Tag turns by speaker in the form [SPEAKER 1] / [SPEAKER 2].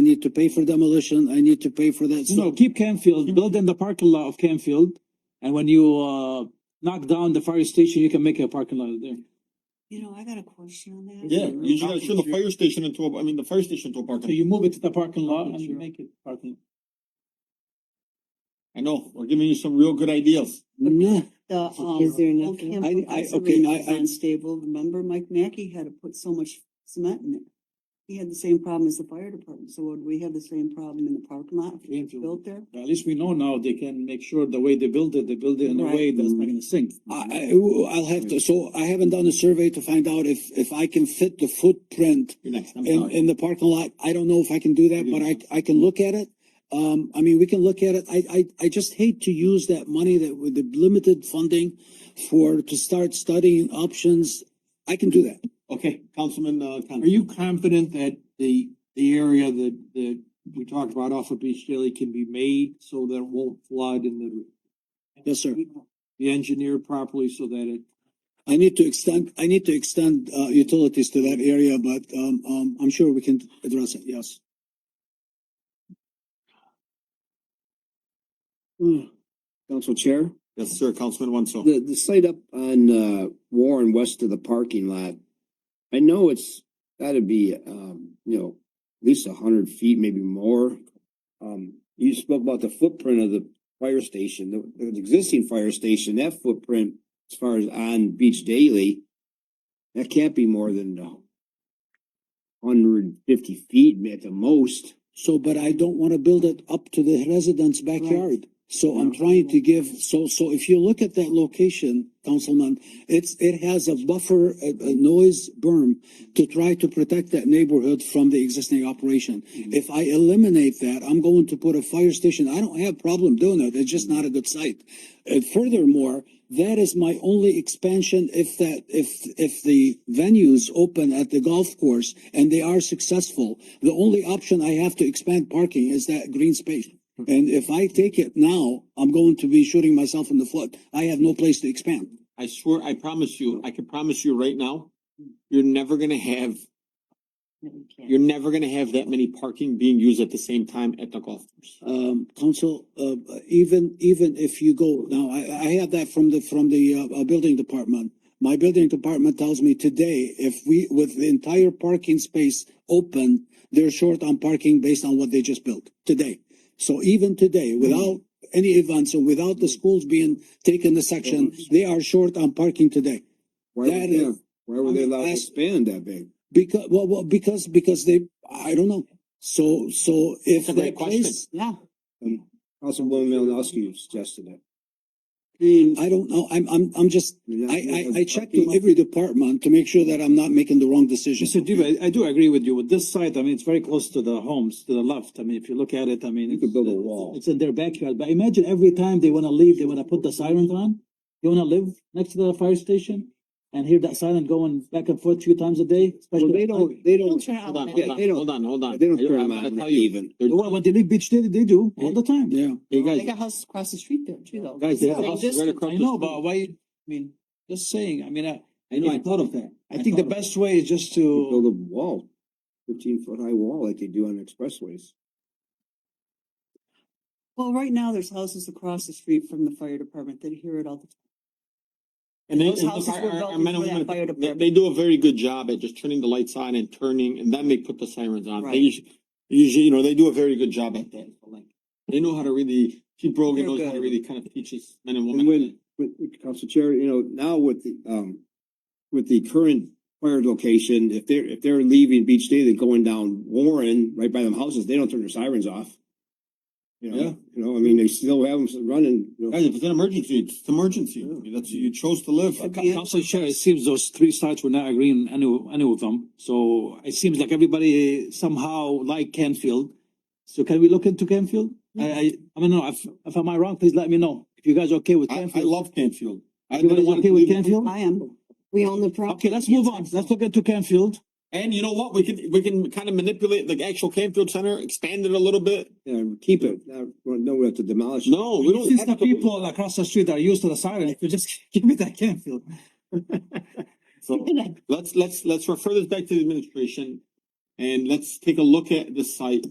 [SPEAKER 1] need to pay for demolition, I need to pay for that.
[SPEAKER 2] No,
[SPEAKER 1] So
[SPEAKER 2] keep Canfield, build in the parking lot of Canfield, and when you, uh, knock down the fire station, you can make a parking lot there.
[SPEAKER 3] You know, I got a question on that.
[SPEAKER 4] Yeah, you just gotta turn the fire station into a, I mean, the fire station into a
[SPEAKER 2] So
[SPEAKER 4] parking.
[SPEAKER 2] you move it to the parking lot and you
[SPEAKER 4] Sure.
[SPEAKER 2] make it parking.
[SPEAKER 4] I know, we're giving you some real good ideas.
[SPEAKER 1] no,
[SPEAKER 3] The, um.
[SPEAKER 5] Is there nothing-
[SPEAKER 3] Old
[SPEAKER 1] I-
[SPEAKER 3] Camp
[SPEAKER 1] I-
[SPEAKER 3] Road
[SPEAKER 1] okay,
[SPEAKER 3] was
[SPEAKER 1] I- I-
[SPEAKER 3] Unstable, remember Mike Mackey had to put so much cement in it. He had the same problem as the fire department, so would we have the same problem in the parking lot if it's
[SPEAKER 2] Greenfield.
[SPEAKER 3] built there?
[SPEAKER 2] At least we know now they can make sure the way they build it, they build it in a way that's not gonna sink.
[SPEAKER 1] I, I, I'll have to, so I haven't done a survey to find out if, if I can fit the footprint
[SPEAKER 4] You're next, I'm
[SPEAKER 1] in,
[SPEAKER 4] sorry.
[SPEAKER 1] in the parking lot. I don't know if I can do that, but I, I can look at it. Um, I mean, we can look at it. I, I, I just hate to use that money that with the limited funding for, to start studying options. I can do that.
[SPEAKER 4] Okay, Councilman, uh,
[SPEAKER 6] Are you confident that the, the area that, that we talked about off of Beach Daily can be made so that it won't flood and that
[SPEAKER 1] Yes, sir.
[SPEAKER 6] be engineered properly so that it,
[SPEAKER 1] I need to extend, I need to extend, uh, utilities to that area, but, um, um, I'm sure we can address it. Yes. Hmm.
[SPEAKER 7] Council Chair,
[SPEAKER 4] Yes, sir, Councilman Wenzel.
[SPEAKER 7] the, the site up on, uh, Warren west of the parking lot. I know it's gotta be, um, you know, at least a hundred feet, maybe more. Um, you spoke about the footprint of the fire station, the, the existing fire station, that footprint as far as on Beach Daily. That can't be more than hundred and fifty feet at the most.
[SPEAKER 1] So, but I don't wanna build it up to the residents' backyard. So I'm trying to give, so, so if you look at that location, Councilman, it's, it has a buffer, a, a noise berm to try to protect that neighborhood from the existing operation. If I eliminate that, I'm going to put a fire station. I don't have a problem doing it. It's just not a good site. And furthermore, that is my only expansion if that, if, if the venues open at the golf course and they are successful, the only option I have to expand parking is that green space. And if I take it now, I'm going to be shooting myself in the foot. I have no place to expand.
[SPEAKER 4] I swear, I promise you, I can promise you right now, you're never gonna have, you're never gonna have that many parking being used at the same time at the golf course.
[SPEAKER 1] um, council, uh, even, even if you go, now, I, I have that from the, from the, uh, uh, building department. My building department tells me today, if we, with the entire parking space open, they're short on parking based on what they just built today. So even today, without any events and without the schools being taken the section, they are short on parking today.
[SPEAKER 7] Why
[SPEAKER 1] That
[SPEAKER 7] would they,
[SPEAKER 1] is-
[SPEAKER 7] why were they allowed to
[SPEAKER 1] That's-
[SPEAKER 7] expand that big?
[SPEAKER 1] Because, well, well, because, because they, I don't know. So, so if
[SPEAKER 4] That's a great
[SPEAKER 1] that
[SPEAKER 4] question.
[SPEAKER 1] place,
[SPEAKER 3] Yeah,
[SPEAKER 7] Councilwoman Malinowski suggested it.
[SPEAKER 3] and
[SPEAKER 1] I don't know, I'm, I'm, I'm just
[SPEAKER 7] mean, that's-
[SPEAKER 1] I, I, I
[SPEAKER 7] that's-
[SPEAKER 1] checked with every department to make sure that I'm not making the wrong decision.
[SPEAKER 2] Mr. Diva, I do agree with you. With this site, I mean, it's very close to the homes, to the left. I mean, if you look at it, I mean.
[SPEAKER 7] You could
[SPEAKER 2] it's- uh,
[SPEAKER 7] build a wall.
[SPEAKER 2] It's in their backyard, but imagine every time they wanna leave, they wanna put the sirens on. You wanna live next to the fire station and hear that siren going back and forth a few times a day,
[SPEAKER 7] Well,
[SPEAKER 2] especially.
[SPEAKER 7] they don't, they
[SPEAKER 5] Don't
[SPEAKER 7] don't,
[SPEAKER 5] turn it
[SPEAKER 4] Hold
[SPEAKER 5] on.
[SPEAKER 4] on, hold on,
[SPEAKER 7] they don't-
[SPEAKER 4] hold on, hold on.
[SPEAKER 7] they don't
[SPEAKER 4] I-
[SPEAKER 7] turn
[SPEAKER 4] I'm
[SPEAKER 7] them
[SPEAKER 4] gonna
[SPEAKER 7] on
[SPEAKER 4] tell you,
[SPEAKER 7] even.
[SPEAKER 4] they're-
[SPEAKER 2] Well, When they leave Beach Daily, they do all the time.
[SPEAKER 1] Yeah,
[SPEAKER 5] They
[SPEAKER 4] Hey,
[SPEAKER 5] got
[SPEAKER 4] guys,
[SPEAKER 5] houses across the street there too though.
[SPEAKER 2] Guys, they have a
[SPEAKER 5] They're
[SPEAKER 2] house
[SPEAKER 5] just-
[SPEAKER 4] right across
[SPEAKER 2] I
[SPEAKER 4] the
[SPEAKER 2] know,
[SPEAKER 4] street.
[SPEAKER 2] but why, I mean, just saying, I mean, I,
[SPEAKER 7] I know, I thought of that.
[SPEAKER 2] I think the best way is just to.
[SPEAKER 7] Build a wall, fifteen foot high wall like they do on expressways.
[SPEAKER 3] well, right now, there's houses across the street from the fire department that hear it all the time.
[SPEAKER 4] And they,
[SPEAKER 3] Those
[SPEAKER 4] and look,
[SPEAKER 3] houses
[SPEAKER 4] our-
[SPEAKER 3] were
[SPEAKER 4] our-
[SPEAKER 3] built
[SPEAKER 4] our men
[SPEAKER 3] before
[SPEAKER 4] and
[SPEAKER 3] that
[SPEAKER 4] women-
[SPEAKER 3] fire
[SPEAKER 4] they-
[SPEAKER 3] department.
[SPEAKER 4] They do a very good job at just turning the lights on and turning, and then they put the sirens on. They
[SPEAKER 3] Right.
[SPEAKER 4] usually, usually, you know, they do a very good job at that. Like, They know how to really, Chief Brogan
[SPEAKER 3] They're
[SPEAKER 4] knows how to
[SPEAKER 3] good.
[SPEAKER 4] really kind of teach his men and
[SPEAKER 7] And
[SPEAKER 4] women.
[SPEAKER 7] when, with uh, Council Chair, you know, now with the, um, with the current fire location, if they're, if they're leaving Beach Day, they're going down Warren, right by them houses, they don't turn their sirens off. You
[SPEAKER 4] Yeah.
[SPEAKER 7] know, you know, I mean, they still have them running, you know.
[SPEAKER 4] Guys, if it's an emergency, it's an emergency. That's, you chose to live.
[SPEAKER 3] Could be
[SPEAKER 2] Council Chair, it seems those three sites were not agreeing any, any of them, so it seems like everybody somehow like Canfield. So can we look into Canfield? I, I, I don't know, if, if am I wrong, please let me know, if you guys are okay with
[SPEAKER 4] I,
[SPEAKER 2] Canfield.
[SPEAKER 4] I love Canfield. I
[SPEAKER 2] Everybody's
[SPEAKER 4] never wanted
[SPEAKER 2] okay
[SPEAKER 4] to
[SPEAKER 2] with
[SPEAKER 4] leave-
[SPEAKER 2] Canfield?
[SPEAKER 3] I am,
[SPEAKER 5] We own the property.
[SPEAKER 2] Okay, let's move on, let's look into Canfield.
[SPEAKER 4] And you know what? We can, we can kind of manipulate the actual Canfield Center, expand it a little bit.
[SPEAKER 7] Yeah, keep it, not, don't have to demolish. it.
[SPEAKER 4] No, Oh, we don't.
[SPEAKER 2] Since the
[SPEAKER 4] have to-
[SPEAKER 2] people across the street are used to the siren, if you just give me that Canfield.
[SPEAKER 4] So let's, let's, let's refer this back to the administration and let's take a look at the site